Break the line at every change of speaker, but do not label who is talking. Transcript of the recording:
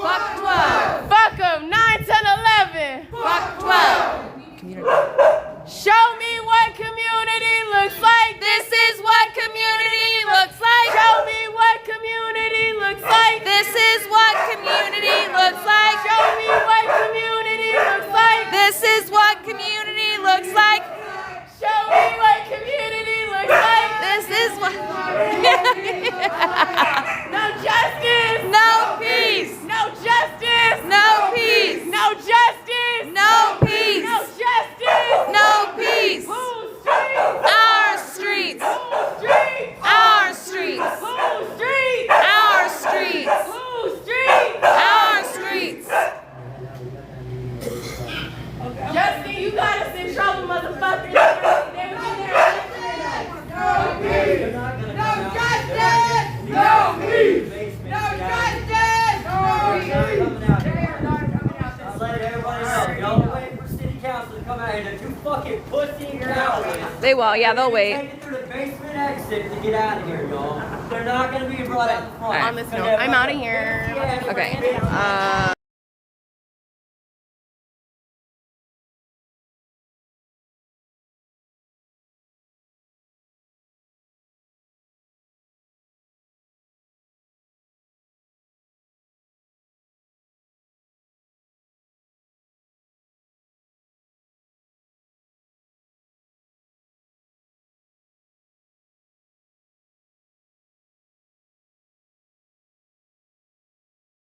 fucking pussy you're out with.
They will. Yeah, they'll wait.
Take it through the basement exit to get out of here, y'all. They're not gonna be brought up front.
All right.
On this note, I'm outta here.
Yeah,
Okay.
bitch.
Uh,